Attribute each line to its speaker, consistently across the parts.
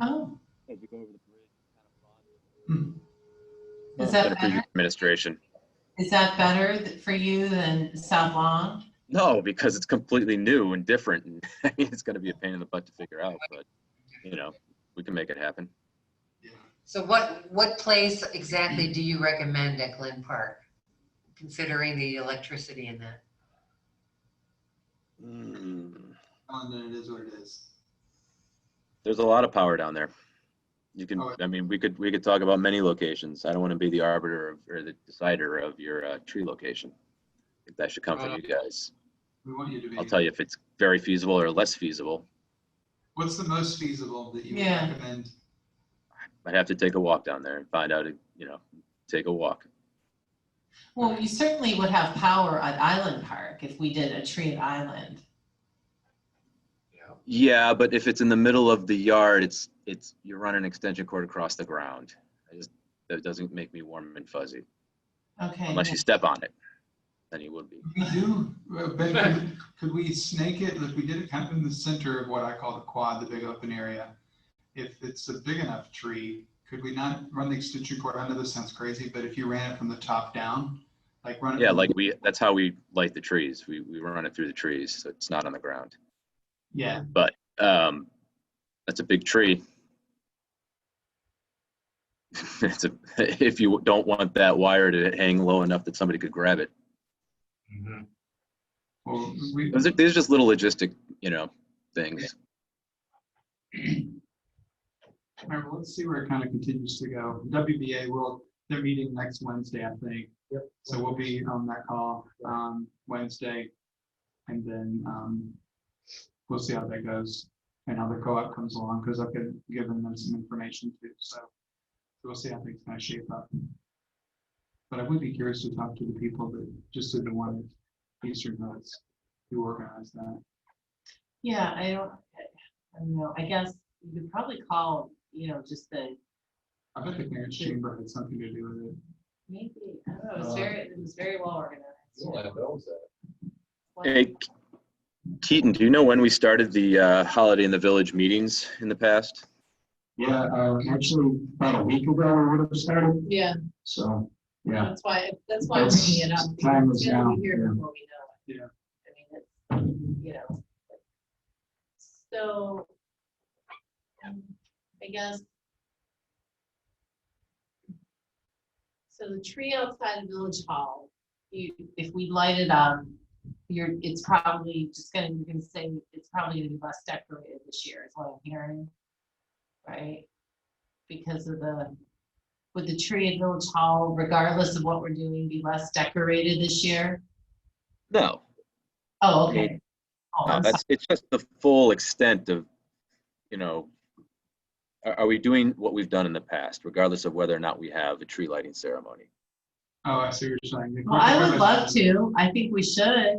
Speaker 1: Oh,
Speaker 2: as you go over the bridge.
Speaker 1: Hmm. is that
Speaker 3: Than previous
Speaker 1: better?
Speaker 3: Administration.
Speaker 1: Is that better th- for you than South Lawn?
Speaker 3: No, because it's completely new and different. and It's gonna be a pain in the butt to figure out, but, you know, we can make it happen.
Speaker 4: So what, what place exactly do you recommend at Glen Park, considering the electricity in that?
Speaker 5: Hmm. And then it is what it is.
Speaker 3: There's a lot of power down there. You can,
Speaker 5: Oh.
Speaker 3: I mean, we could, we could talk about many locations. I don't wanna be the arbiter of, or the decider of your, uh, tree location. I think That should come from you guys.
Speaker 5: Uh, We want you to be.
Speaker 3: I'll tell you if it's very feasible or less feasible.
Speaker 5: What's the most feasible that you would
Speaker 1: Yeah.
Speaker 5: recommend?
Speaker 3: I'd have to take a walk down there and find out, you know, take a walk.
Speaker 1: Well, we certainly would have power at Island Park if we did a tree at Island.
Speaker 3: Yeah, but if it's in the middle of the yard, it's, it's, you run an extension cord across the ground. I just, that doesn't make me warm and fuzzy,
Speaker 1: Okay.
Speaker 3: unless you step on it, then you would be.
Speaker 5: We do, uh, but could- could we snake it, like we did it kind of in the center of what I call the quad, the big open area? If it's a big enough tree, could we not run the extension cord, I know this sounds crazy, but if you ran it from the top down, like run it.
Speaker 3: Yeah,
Speaker 5: from-
Speaker 3: like we, that's how we light the trees. We, we run it through the trees, so it's not on the ground.
Speaker 5: Yeah,
Speaker 3: But, um, that's a big tree. It's a, if you don't want that wire to hang low enough that somebody could grab it.
Speaker 5: well, we,
Speaker 3: Those are- These are just little logistic, you know, things.
Speaker 5: remember, let's see where it kind of continues to go. WBA will, they're meeting next Wednesday, I think. Yep. So we'll be on that call, um, Wednesday. And then, um, we'll see how that goes and how the co-op comes along, because I've been giving them some information too, so. We'll see how things kind of shape up. But I would be curious to talk to the people that, just to the one, Eastern Hoods, who organized that.
Speaker 1: Yeah, I don't, I don't know. I guess you could probably call, you know, just the,
Speaker 5: I bet the Clarence Chamber had something to do with it.
Speaker 1: maybe, I don't know, it
Speaker 3: Uh,
Speaker 1: was very, it was very well organized.
Speaker 3: Hey, Ke- Keaton, do you know when we started the uh, Holiday in the Village meetings in the past?
Speaker 6: Yeah, uh, actually, about a week ago, we would have started,
Speaker 1: Yeah,
Speaker 6: so, yeah.
Speaker 1: that's why, that's
Speaker 6: why I'm bringing it up, That's- time because is it's gonna be now, here yeah.
Speaker 1: before we
Speaker 5: it. Yeah.
Speaker 1: I mean, it's, you know. So, I guess. So the tree outside of Village Hall, you, if we light it up, you're, it's probably just gonna, you're gonna say, it's probably gonna be less decorated this year, is what I'm hearing. Right? Because of the, would the tree at Village Hall, regardless of what we're doing, be less decorated this year?
Speaker 3: No,
Speaker 1: Oh, okay. Oh,
Speaker 3: no,
Speaker 1: I'm
Speaker 3: Uh, that's, it's just the full extent of, you know, are, are we doing what we've done in the past, regardless of whether or not we have a tree lighting ceremony?
Speaker 5: Oh, I see what you're saying. The
Speaker 1: Well, I would
Speaker 5: Clarence-
Speaker 1: love to. I think we should,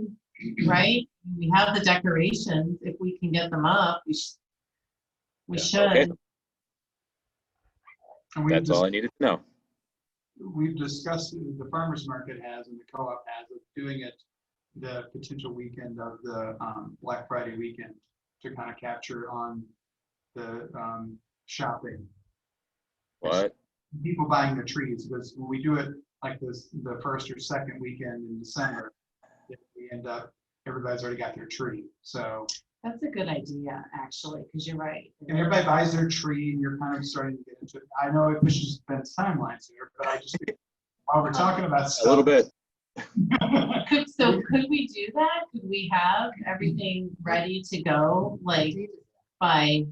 Speaker 1: right? We have the decorations. If we can get them up, we should. We
Speaker 3: Yeah, okay.
Speaker 1: should.
Speaker 5: And we
Speaker 3: That's
Speaker 5: just-
Speaker 3: all I needed to know.
Speaker 5: we've discussed, the farmer's market has and the co-op has of doing it the potential weekend of the um, Black Friday weekend to kind of capture on the um, shopping.
Speaker 3: What?
Speaker 5: People buying their trees, because when we do it like this, the first or second weekend in December, if we end up, everybody's already got their tree. So,
Speaker 1: That's a good idea, actually, because you're right.
Speaker 5: and everybody buys their tree and you're kind of starting to get into it. I know it pushes Ben's timelines here, but I just, think while we're talking about stuff.
Speaker 3: A little bit.
Speaker 1: Could, so could we do that? Could we have everything ready to go, like by,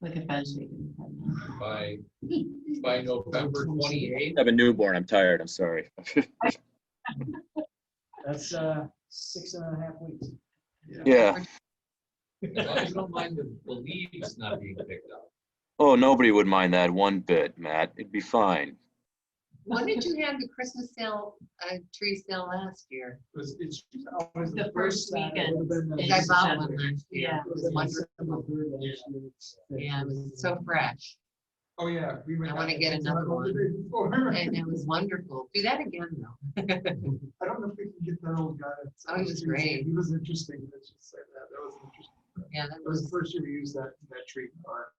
Speaker 1: look at Ben's shaking his head now.
Speaker 7: by, by November
Speaker 3: I
Speaker 7: twenty-eighth.
Speaker 3: have a newborn. I'm tired. I'm sorry.
Speaker 6: That's, uh, six and a half weeks.
Speaker 3: Yeah.
Speaker 7: As long as you don't mind the the leaves not being picked up.
Speaker 3: Oh, nobody would mind that one bit, Matt. It'd be fine.
Speaker 4: When did you have the Christmas sale, uh, tree sale last year?
Speaker 5: It's, it's always
Speaker 1: The first
Speaker 5: Saturday,
Speaker 1: weekend
Speaker 5: but then
Speaker 1: in
Speaker 4: I
Speaker 5: it's-
Speaker 4: bought
Speaker 1: December.
Speaker 4: one last year.
Speaker 1: Yeah.
Speaker 4: It was wonderful. Yeah, it was so fresh.
Speaker 5: Oh, yeah. we went
Speaker 4: I wanna
Speaker 5: out-
Speaker 4: get another one.
Speaker 5: Oh,
Speaker 4: And
Speaker 5: I
Speaker 4: it was wonderful. Do that again though.
Speaker 5: don't know if we can get that old guy.
Speaker 4: Oh, he was great.
Speaker 5: He was interesting, let's just say that, that was interesting.
Speaker 4: Yeah, that
Speaker 5: That was
Speaker 4: was,
Speaker 5: the first year we used that, that tree, or